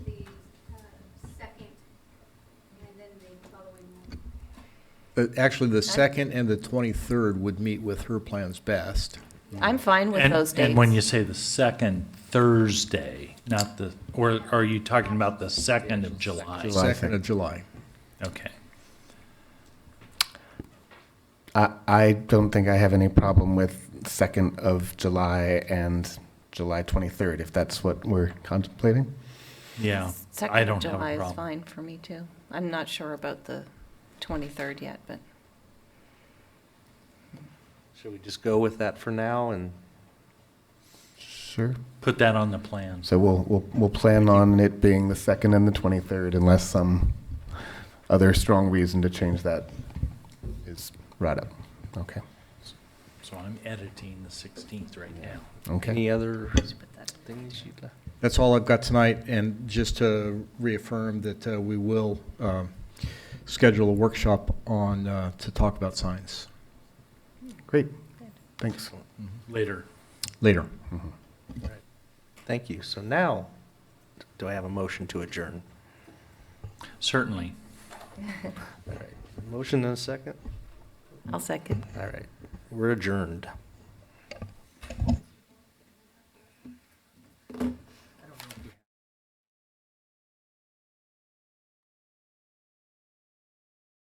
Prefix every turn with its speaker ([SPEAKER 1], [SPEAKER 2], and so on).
[SPEAKER 1] uh, actually, the second and the twenty-third would meet with her plans best.
[SPEAKER 2] I'm fine with
[SPEAKER 3] And-
[SPEAKER 2] those dates.
[SPEAKER 3] And when you say the second Thursday, not the, or are you talking about the second of July?
[SPEAKER 1] Second of July.
[SPEAKER 3] Okay.
[SPEAKER 4] I, I don't think I have any problem with second of July and July twenty-third, if that's what we're contemplating.
[SPEAKER 3] Yeah,
[SPEAKER 2] Second
[SPEAKER 3] I
[SPEAKER 2] of
[SPEAKER 3] don't have
[SPEAKER 2] July
[SPEAKER 3] a
[SPEAKER 2] is
[SPEAKER 3] problem.
[SPEAKER 2] fine for me, too. I'm not sure about the 23rd yet, but
[SPEAKER 5] Should we just go with that for now and?
[SPEAKER 4] Sure.
[SPEAKER 3] Put that on the plans.
[SPEAKER 4] So we'll, we'll, we'll plan on it being the second and the twenty-third unless some other strong reason to change that is brought up. Okay,
[SPEAKER 3] So I'm editing the 16th right now.
[SPEAKER 4] okay.
[SPEAKER 5] Any uh, other
[SPEAKER 2] put that
[SPEAKER 5] things you'd like?
[SPEAKER 1] That's all I've got tonight, and just to reaffirm that uh, we will um, schedule a workshop on, uh, to talk about science
[SPEAKER 4] Great, thanks. Mm-hmm.
[SPEAKER 3] Later.
[SPEAKER 1] later.
[SPEAKER 5] Thank you. So now, do I have a motion to adjourn?
[SPEAKER 3] Certainly.
[SPEAKER 5] All right. Motion and a second?
[SPEAKER 2] I'll second.
[SPEAKER 5] All right. We're adjourned.